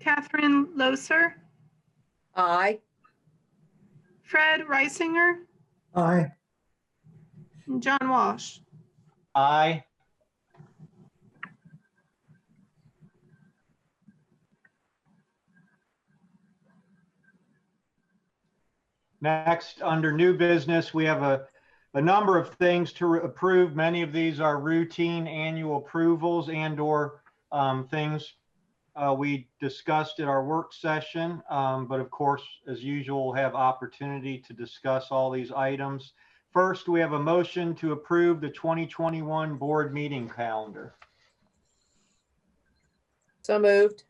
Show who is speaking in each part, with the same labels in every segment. Speaker 1: Catherine Loser,
Speaker 2: Aye.
Speaker 1: Fred Reisinger,
Speaker 3: Aye.
Speaker 1: and John Walsh.
Speaker 4: Aye. Next, under new business, we have a, a number of things to approve. Many of these are routine annual approvals and/or um, things uh, we discussed at our work session. Um, But of course, as usual, we'll have opportunity to discuss all these items. First, we have a motion to approve the 2021 board meeting calendar.
Speaker 2: So moved.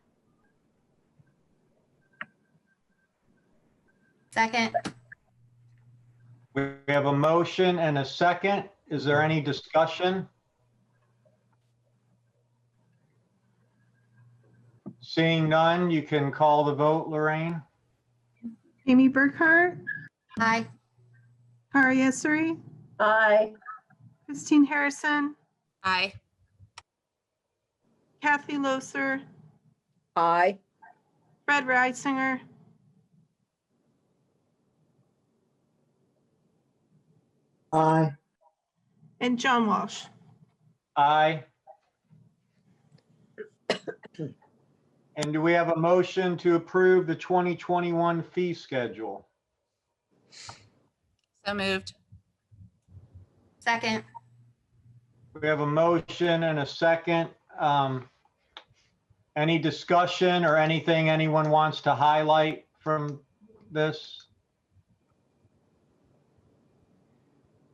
Speaker 5: Second,
Speaker 4: We have a motion and a second. Is there any discussion? Seeing none, you can call the vote, Lorraine.
Speaker 1: Amy Burkhart,
Speaker 5: aye.
Speaker 1: Kari Essery,
Speaker 2: Aye.
Speaker 1: Christine Harrison,
Speaker 5: Aye.
Speaker 1: Kathy Loser,
Speaker 2: Aye.
Speaker 1: Fred Reisinger,
Speaker 3: Aye.
Speaker 1: and John Walsh.
Speaker 4: Aye. And do we have a motion to approve the 2021 fee schedule?
Speaker 5: So moved. Second,
Speaker 4: We have a motion and a second. Um, Any discussion or anything anyone wants to highlight from this?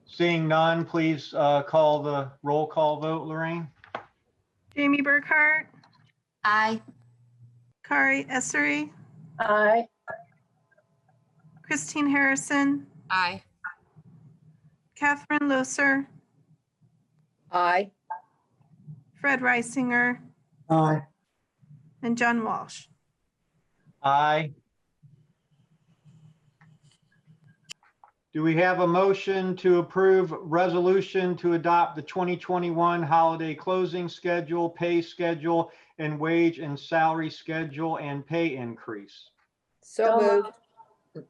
Speaker 4: Seeing none, please uh, call the roll call vote, Lorraine.
Speaker 1: Jamie Burkhart,
Speaker 5: aye.
Speaker 1: Kari Essery,
Speaker 2: Aye.
Speaker 1: Christine Harrison,
Speaker 5: Aye.
Speaker 1: Catherine Loser,
Speaker 2: Aye.
Speaker 1: Fred Reisinger,
Speaker 3: Aye.
Speaker 1: and John Walsh.
Speaker 4: Aye. Do we have a motion to approve resolution to adopt the 2021 holiday closing schedule, pay schedule, and wage and salary schedule and pay increase?
Speaker 2: So moved.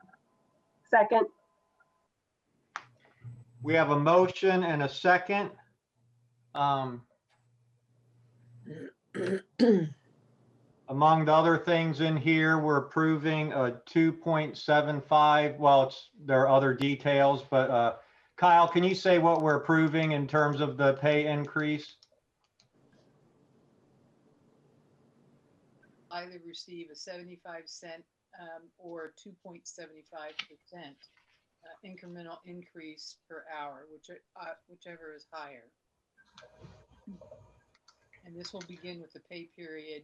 Speaker 6: Second,
Speaker 4: We have a motion and a second. Um, Among the other things in here, we're approving a 2.75, well, it's, there are other details, but uh, Kyle, can you say what we're approving in terms of the pay increase?
Speaker 7: either receive a 75 cent um, or 2.75% uh, incremental increase per hour, which, uh, whichever is higher. And this will begin with the pay period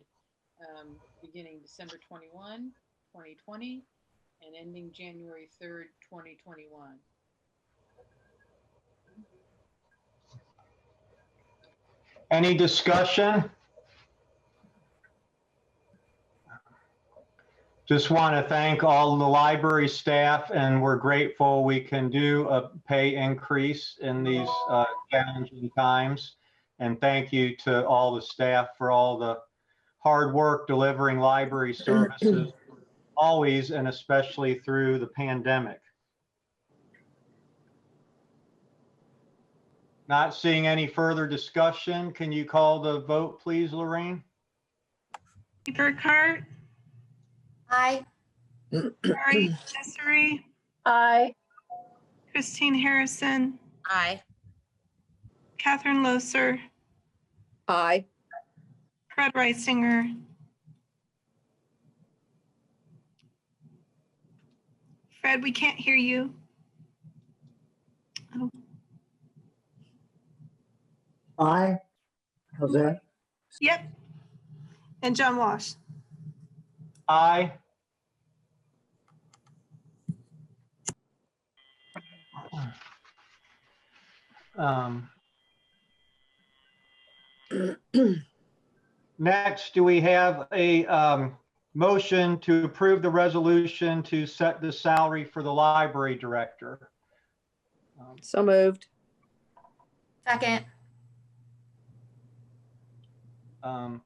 Speaker 7: um, beginning December 21, 2020, and ending January 3rd, 2021.
Speaker 4: Any discussion? Just want to thank all the library staff and we're grateful we can do a pay increase in these uh, challenging times. And thank you to all the staff for all the hard work delivering library services always and especially through the pandemic. Not seeing any further discussion. Can you call the vote, please, Lorraine?
Speaker 1: Amy Burkhart,
Speaker 5: Aye.
Speaker 1: Kari Essery,
Speaker 6: aye.
Speaker 1: Christine Harrison,
Speaker 5: Aye.
Speaker 1: Catherine Loser,
Speaker 2: Aye.
Speaker 1: Fred Reisinger. Fred, we can't hear you.
Speaker 3: Aye. How's that?
Speaker 1: Yep. And John Walsh.
Speaker 4: Aye. Um, Next, do we have a um, motion to approve the resolution to set the salary for the library director?
Speaker 2: So moved.
Speaker 5: Second,
Speaker 4: Um,